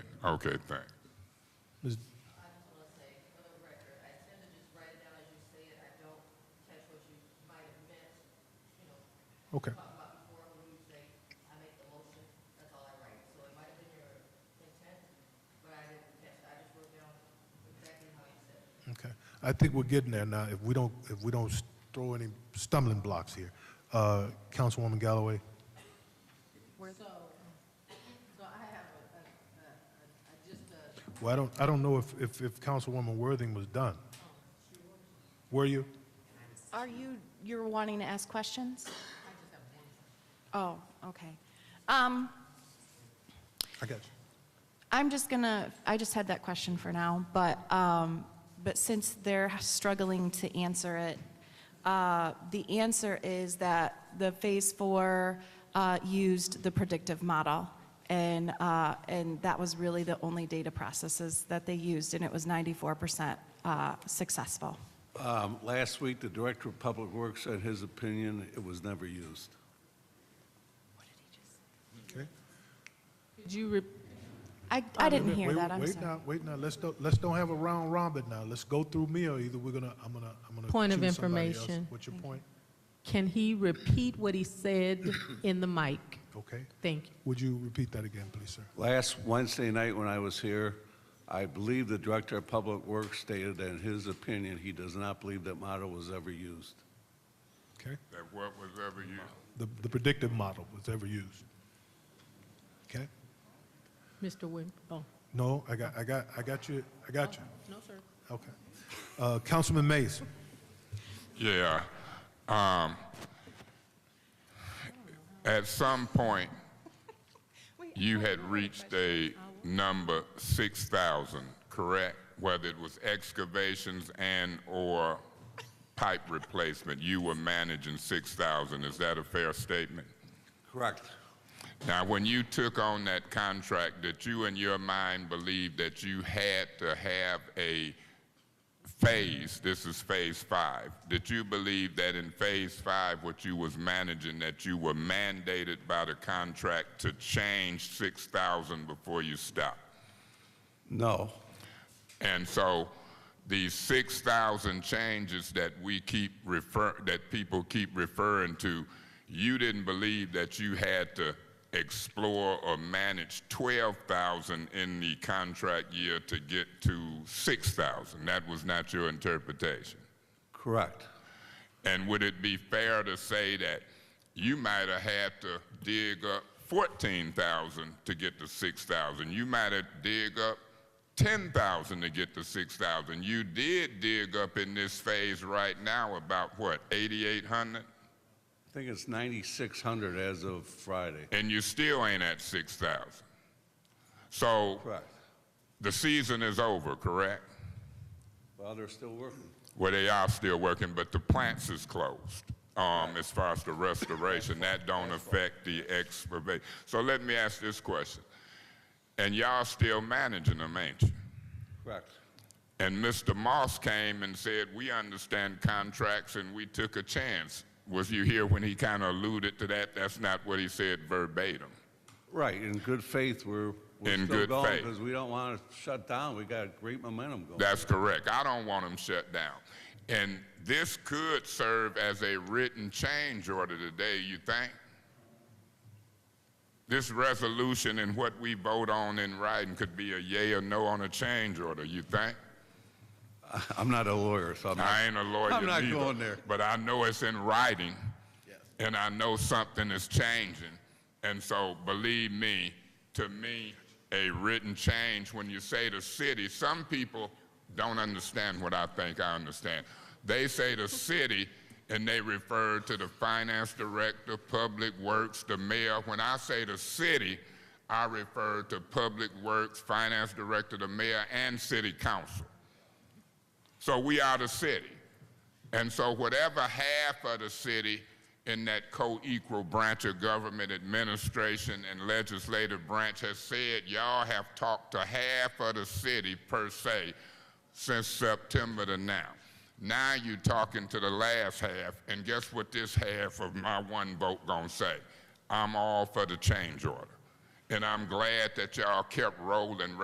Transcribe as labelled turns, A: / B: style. A: Okay, thank.
B: Ms.
C: I just want to say, for the record, I tend to just write it down as you say it. I don't catch what you might have meant, you know,
B: Okay,
C: talk about before when you say, I make the motion, that's all I write. So it might have been your intent, but I didn't catch it. I just wrote down exactly how you said it.
B: okay. I think we're getting there now. If we don't, if we don't throw any stumbling blocks here. Uh, Councilwoman Galloway?
C: So, so I have a, a, a- a, just a,
B: Well, I don't, I don't know if, if, if Councilwoman Worthing was done. Were you?
D: Are you, you're wanting to ask questions? Oh, okay. Um,
B: I got you.
D: I'm just gonna, I just had that question for now, but, um, but since they're struggling to answer it, uh, the answer is that the Phase Four, uh, used the predictive model. And, uh, and that was really the only data processes that they used, and it was ninety-four percent, uh, successful.
E: Um, Last week, the Director of Public Works said his opinion, it was never used.
B: Okay.
F: Could you, re-
D: I, I didn't
B: Wait,
D: hear
B: wait,
D: that, I'm
B: Wait uh,
D: sorry.
B: now, wait now, let's don't, let's don't have a round robin now. Let's go through me or either we're gonna, I'm gonna, I'm gonna.
F: Point of
B: choose somebody else.
F: information.
B: What's your point?
F: can he repeat what he said in the mic?
B: Okay.
F: Thank you.
B: Would you repeat that again, please, sir?
E: Last Wednesday night, when I was here, I believe the Director of Public Works stated that in his opinion, he does not believe that motto was ever used.
B: Okay.
A: That what was ever used?
B: The, the predictive model was ever used. Okay?
F: Mr. Win, oh,
B: No, I got, I got, I got you, I got you.
F: no, sir.
B: Okay. Uh, Councilman Mays?
A: Yeah. Um, at some point, you had reached a number six thousand, correct? Whether it was excavations and or pipe replacement, you were managing six thousand. Is that a fair statement?
E: Correct.
A: Now, when you took on that contract, did you in your mind believe that you had to have a phase? This is phase five. Did you believe that in phase five, what you was managing, that you were mandated by the contract to change 6,000 before you stopped?
E: No.
A: And so these 6,000 changes that we keep refer, that people keep referring to, you didn't believe that you had to explore or manage 12,000 in the contract year to get to 6,000. That was not your interpretation.
E: Correct.
A: And would it be fair to say that you might have had to dig up 14,000 to get to 6,000? You might have dig up 10,000 to get to 6,000. You did dig up in this phase right now about what, 8,800?
E: I think it's 9,600 as of Friday.
A: And you still ain't at 6,000. So
E: Correct.
A: the season is over, correct?
E: Well, they're still working.
A: Well, they are still working, but the plants is closed, um, as far as the restoration. That don't affect the excavation. So let me ask this question. And y'all still managing them, ain't you?
E: Correct.
A: And Mr. Moss came and said, we understand contracts and we took a chance. Was you here when he kind of alluded to that? That's not what he said verbatim.
E: Right, in good faith, we're, we're
A: In
E: still
A: good
E: going
A: faith.
E: because we don't want to shut down. We got great momentum going.
A: That's correct. I don't want them shut down. And this could serve as a written change order today, you think? This resolution and what we vote on in writing could be a yay or no on a change order, you think?
E: I'm not a lawyer, so I'm not.
A: I ain't a lawyer
E: I'm not
A: neither,
E: going there.
A: But I know it's in writing, and I know something is changing. And so, believe me, to me, a written change, when you say the city, some people don't understand what I think I understand. They say the city, and they refer to the finance director, public works, the mayor. When I say the city, I refer to public works, finance director, the mayor, and city council. So we are the city. And so whatever half of the city in that co-equal branch of government administration and legislative branch has said, y'all have talked to half of the city per se since September to now. Now you talking to the last half, and guess what this half of my one vote gonna say? I'm all for the change order. And I'm glad that y'all kept rolling